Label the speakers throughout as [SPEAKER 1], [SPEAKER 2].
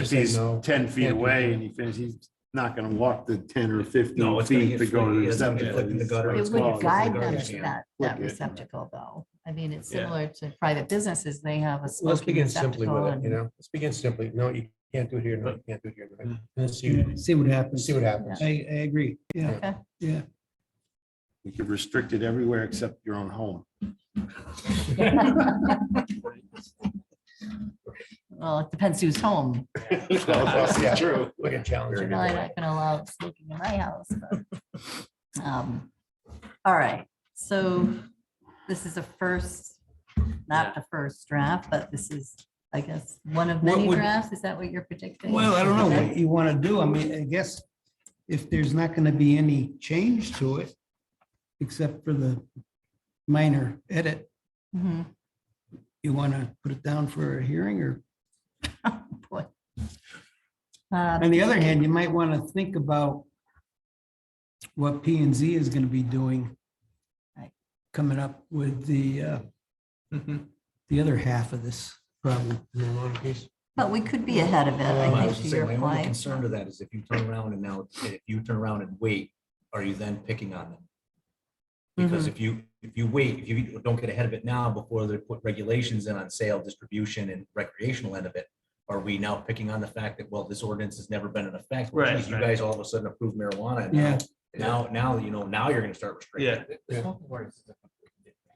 [SPEAKER 1] If
[SPEAKER 2] say
[SPEAKER 1] he's
[SPEAKER 2] no.
[SPEAKER 1] ten feet
[SPEAKER 2] Can't do
[SPEAKER 1] away
[SPEAKER 2] that.
[SPEAKER 1] and he finishes, he's not gonna walk the ten or fifteen
[SPEAKER 3] No, it's gonna
[SPEAKER 1] feet
[SPEAKER 3] get
[SPEAKER 1] to go to
[SPEAKER 3] flicky.
[SPEAKER 1] the
[SPEAKER 3] It's gonna get flicked in the gutter.
[SPEAKER 1] septic.
[SPEAKER 3] It's
[SPEAKER 4] It
[SPEAKER 3] called-
[SPEAKER 4] would
[SPEAKER 3] it's
[SPEAKER 4] guide
[SPEAKER 3] a
[SPEAKER 4] them
[SPEAKER 3] garbage
[SPEAKER 4] to
[SPEAKER 3] can.
[SPEAKER 4] that,
[SPEAKER 1] Look
[SPEAKER 4] that
[SPEAKER 1] at-
[SPEAKER 4] receptacle though. I mean, it's
[SPEAKER 3] Yeah.
[SPEAKER 4] similar to private businesses. They have a
[SPEAKER 2] Let's
[SPEAKER 4] smoking
[SPEAKER 2] begin simply
[SPEAKER 4] receptacle
[SPEAKER 2] with it, you
[SPEAKER 4] and
[SPEAKER 2] know, let's begin simply. No, you can't do it here, no, you can't do it here. no, you can't. Let's
[SPEAKER 5] Yeah,
[SPEAKER 2] see,
[SPEAKER 5] See what happens.
[SPEAKER 2] see what happens.
[SPEAKER 5] I, I agree. Yeah,
[SPEAKER 4] Okay.
[SPEAKER 5] yeah.
[SPEAKER 1] You could restrict it everywhere except your own home.
[SPEAKER 4] Well, it depends who's home.
[SPEAKER 2] Yeah.
[SPEAKER 1] That's true.
[SPEAKER 2] We can challenge
[SPEAKER 4] You're
[SPEAKER 2] it.
[SPEAKER 4] probably
[SPEAKER 2] either way.
[SPEAKER 4] not gonna allow smoking in my house, but. um, All right, so this is a first, not the first draft, but this is, I guess, one of
[SPEAKER 5] What
[SPEAKER 4] many
[SPEAKER 5] would-
[SPEAKER 4] drafts. Is that what you're predicting?
[SPEAKER 5] Well, I don't know
[SPEAKER 4] Okay.
[SPEAKER 5] what you want to do. I mean, I guess if there's not going to be any change to it, except for the minor edit,
[SPEAKER 4] Mhm.
[SPEAKER 5] you want to put it down for a hearing or,
[SPEAKER 4] Boy. Uh,
[SPEAKER 5] on the other hand, you might want to think about what P and Z is going to be doing
[SPEAKER 4] Right.
[SPEAKER 5] coming up with the, uh, the other half of this problem.
[SPEAKER 2] Marijuana piece.
[SPEAKER 4] But we could be ahead of it,
[SPEAKER 3] Well, I
[SPEAKER 4] I
[SPEAKER 3] was
[SPEAKER 4] think, to
[SPEAKER 3] gonna say,
[SPEAKER 4] your
[SPEAKER 3] My only
[SPEAKER 4] point.
[SPEAKER 3] concern to that is if you turn around and now, if you turn around and wait, are you then picking on them?
[SPEAKER 4] Mm-hmm.
[SPEAKER 5] Mm-hmm.
[SPEAKER 3] Because if you, if you wait, if you don't get ahead of it now before they put regulations in on sale, distribution and recreational end of it, are we now picking on the fact that, well, this ordinance has never been in effect? Well,
[SPEAKER 6] Right,
[SPEAKER 3] geez, You
[SPEAKER 6] right.
[SPEAKER 3] guys all of a sudden approve marijuana. and
[SPEAKER 5] Yeah.
[SPEAKER 3] Now, now, you know, now you're gonna start restricting. it.
[SPEAKER 2] Yeah.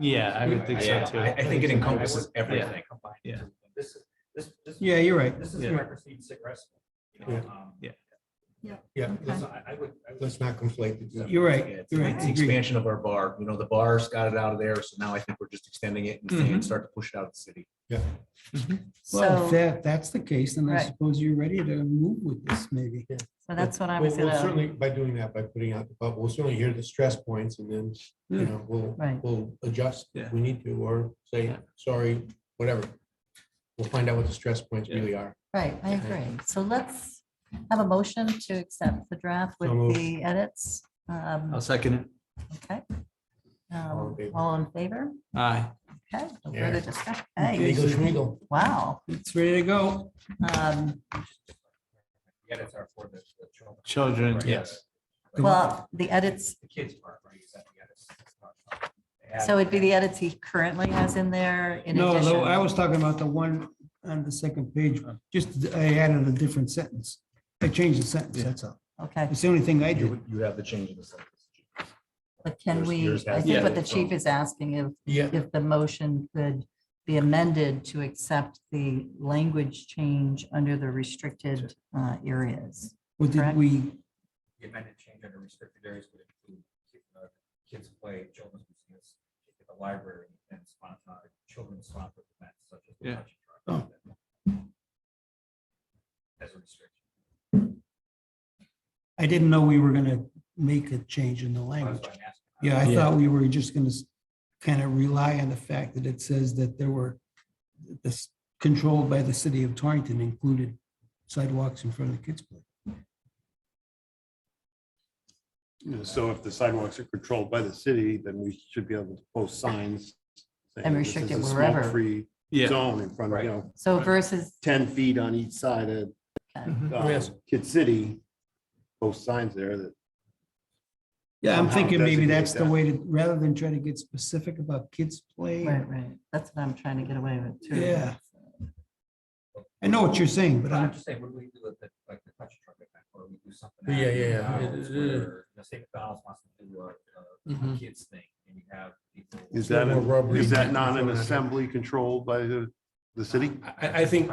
[SPEAKER 6] Yeah, I would think so
[SPEAKER 3] Yeah,
[SPEAKER 6] too.
[SPEAKER 3] I, I think it encompasses everything.
[SPEAKER 6] Yeah.
[SPEAKER 7] This is, this, this.
[SPEAKER 5] Yeah, you're right.
[SPEAKER 7] This is
[SPEAKER 6] Yeah.
[SPEAKER 7] microseed cigarettes. you know, um,
[SPEAKER 6] Yeah.
[SPEAKER 2] Yeah,
[SPEAKER 7] this- I, I would. I would-
[SPEAKER 2] let's not conflate. the two.
[SPEAKER 5] You're right.
[SPEAKER 3] It's
[SPEAKER 5] You're right.
[SPEAKER 3] it's
[SPEAKER 5] I
[SPEAKER 3] the
[SPEAKER 5] agree.
[SPEAKER 3] expansion of our bar. You know, the bar's got it out of there, so now I think we're just extending it and
[SPEAKER 5] Mm-hmm.
[SPEAKER 3] saying, start to push it out of the city.
[SPEAKER 5] Well, if
[SPEAKER 4] So,
[SPEAKER 5] that, that's the case, then I
[SPEAKER 4] Right.
[SPEAKER 5] suppose you're ready to move with this maybe.
[SPEAKER 4] so that's what I was
[SPEAKER 2] We'll- we'll
[SPEAKER 4] gonna,
[SPEAKER 2] Certainly, by doing that, by putting out, the but we'll certainly hear the stress points and then, you
[SPEAKER 5] Mm.
[SPEAKER 2] know, we'll,
[SPEAKER 4] Right.
[SPEAKER 2] we'll adjust if
[SPEAKER 6] Yeah.
[SPEAKER 2] we need to, or say,
[SPEAKER 6] Yeah.
[SPEAKER 2] sorry, whatever. We'll find out what the stress points
[SPEAKER 6] Yeah.
[SPEAKER 2] really are.
[SPEAKER 4] right, I agree. So let's have a motion to accept the draft
[SPEAKER 2] So
[SPEAKER 4] with
[SPEAKER 2] moved.
[SPEAKER 4] the edits. Um,
[SPEAKER 6] I'll second it.
[SPEAKER 4] Okay.
[SPEAKER 2] All in
[SPEAKER 4] Um,
[SPEAKER 2] favor.
[SPEAKER 4] All in favor?
[SPEAKER 6] Aye.
[SPEAKER 4] Okay. no
[SPEAKER 2] Yeah.
[SPEAKER 4] further discussion. Hey,
[SPEAKER 2] Eagle Schmeagle.
[SPEAKER 4] wow.
[SPEAKER 5] It's ready to go.
[SPEAKER 4] Um,
[SPEAKER 7] Yeah, it's our for the the children.
[SPEAKER 6] Children,
[SPEAKER 7] Right.
[SPEAKER 6] yes.
[SPEAKER 4] Well, the edits,
[SPEAKER 7] The kids part, right? is that the edits? It's not- they add-
[SPEAKER 4] so it'd be the edits he currently has in there in
[SPEAKER 5] No,
[SPEAKER 4] addition.
[SPEAKER 5] no, I was talking about the one on the second page, just I added a different sentence. I changed the sentence, that's all.
[SPEAKER 4] Okay,
[SPEAKER 5] It's the only thing I did.
[SPEAKER 3] You, you have the change in the sentence.
[SPEAKER 4] but can
[SPEAKER 3] Yours-
[SPEAKER 4] we,
[SPEAKER 3] yours
[SPEAKER 4] I
[SPEAKER 3] has
[SPEAKER 4] think
[SPEAKER 6] the
[SPEAKER 4] what the
[SPEAKER 3] edits,
[SPEAKER 4] chief
[SPEAKER 3] so-
[SPEAKER 4] is asking if
[SPEAKER 2] Yeah,
[SPEAKER 4] if the motion could be amended to accept the language change under the restricted uh, areas.
[SPEAKER 5] What did
[SPEAKER 4] Correct.
[SPEAKER 5] we,
[SPEAKER 7] The amended change under restricted areas would include uh, kids play, children's museums, the library, and sponsor, children's sponsored events such as. the
[SPEAKER 6] Yeah.
[SPEAKER 7] touch and drive. As a restriction.
[SPEAKER 5] I didn't know we were gonna make a change in the
[SPEAKER 7] That's
[SPEAKER 5] language.
[SPEAKER 7] why I'm asking.
[SPEAKER 5] Yeah, I
[SPEAKER 6] Yeah.
[SPEAKER 5] thought we were just gonna kind of rely on the fact that it says that there were this controlled by the city of Torrington included sidewalks in front of the kids' play.
[SPEAKER 1] You know, So if the sidewalks are controlled by the city, then we should be able to post signs. saying
[SPEAKER 4] And
[SPEAKER 1] this
[SPEAKER 4] restrict
[SPEAKER 1] is
[SPEAKER 4] it
[SPEAKER 1] a
[SPEAKER 4] wherever.
[SPEAKER 1] smoke-free
[SPEAKER 6] Yeah.
[SPEAKER 1] Zone in front of, you know,
[SPEAKER 4] So versus,
[SPEAKER 1] ten feet on each side of
[SPEAKER 2] Mhm.
[SPEAKER 1] uh,
[SPEAKER 2] Yes.
[SPEAKER 1] Kid City, post signs there that
[SPEAKER 5] Yeah, I'm
[SPEAKER 1] Somehow
[SPEAKER 5] thinking maybe
[SPEAKER 1] designate
[SPEAKER 5] that's the
[SPEAKER 1] that.
[SPEAKER 5] way to, rather than try to get specific about kids' play.
[SPEAKER 4] right, right, that's what I'm trying to get away with too.
[SPEAKER 5] Yeah. I know what you're saying, but
[SPEAKER 7] But I'm
[SPEAKER 5] I'm,
[SPEAKER 7] just saying, what do we do with the, like, the touch truck event, or we do something?
[SPEAKER 2] Yeah,
[SPEAKER 7] at
[SPEAKER 2] yeah, yeah.
[SPEAKER 7] McDonald's
[SPEAKER 2] It- it- it-
[SPEAKER 7] where The state McDonald's wants to do a, a
[SPEAKER 2] Mhm.
[SPEAKER 7] kids thing, and you have people.
[SPEAKER 1] is
[SPEAKER 2] a
[SPEAKER 1] that,
[SPEAKER 2] little more
[SPEAKER 1] a-
[SPEAKER 2] rubbery.
[SPEAKER 1] is that not an assembly controlled by the, the city?
[SPEAKER 2] I, I think,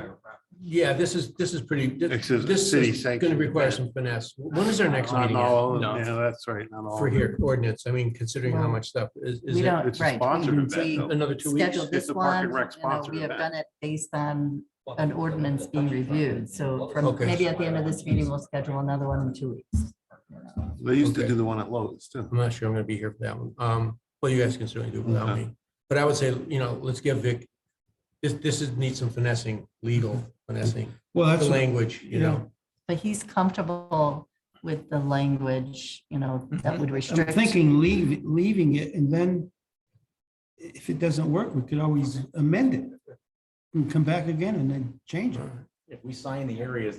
[SPEAKER 2] yeah, this is, this is pretty,
[SPEAKER 1] This
[SPEAKER 2] this
[SPEAKER 1] is
[SPEAKER 2] this
[SPEAKER 1] city
[SPEAKER 2] is going to
[SPEAKER 1] sanctioned.
[SPEAKER 2] require some finesse. When is our next
[SPEAKER 1] Not
[SPEAKER 2] meeting at?
[SPEAKER 1] all,
[SPEAKER 6] No.
[SPEAKER 1] yeah, that's right, not all.
[SPEAKER 2] for here ordinance? I mean, considering how
[SPEAKER 4] Well,
[SPEAKER 2] much stuff is, is
[SPEAKER 4] We
[SPEAKER 2] it
[SPEAKER 4] don't,
[SPEAKER 1] It's a
[SPEAKER 4] right.
[SPEAKER 1] sponsored
[SPEAKER 4] we-
[SPEAKER 1] event,
[SPEAKER 4] we
[SPEAKER 1] though.
[SPEAKER 2] another two weeks?
[SPEAKER 4] Scheduled
[SPEAKER 1] It's
[SPEAKER 4] this
[SPEAKER 1] a Park
[SPEAKER 4] one,
[SPEAKER 1] and Rec
[SPEAKER 4] you know, we
[SPEAKER 1] sponsored
[SPEAKER 4] have
[SPEAKER 1] event.
[SPEAKER 4] done it based on
[SPEAKER 7] Well,
[SPEAKER 4] an
[SPEAKER 7] the-
[SPEAKER 4] ordinance
[SPEAKER 7] the
[SPEAKER 4] being
[SPEAKER 7] touch truck
[SPEAKER 4] reviewed,
[SPEAKER 7] and-
[SPEAKER 4] so
[SPEAKER 7] well,
[SPEAKER 4] from,
[SPEAKER 2] Okay.
[SPEAKER 4] maybe at the end of this meeting, we'll schedule another one in two weeks.
[SPEAKER 1] They used to
[SPEAKER 2] Okay.
[SPEAKER 1] do the one at Lowe's too.
[SPEAKER 2] I'm not sure I'm gonna be here for that one. Um, well, you guys can certainly do it without me. But I would say, you know, let's give Vic, this, this is, needs some finessing, legal finessing,
[SPEAKER 5] well,
[SPEAKER 2] the
[SPEAKER 5] that's, what-
[SPEAKER 2] language, you know?
[SPEAKER 4] But he's comfortable with the language, you know, that would
[SPEAKER 5] Mm-hmm. I'm
[SPEAKER 4] restrict.
[SPEAKER 5] thinking leave, leaving it and then if it doesn't work, we could always amend it and come back again and then change it.
[SPEAKER 3] If we sign the areas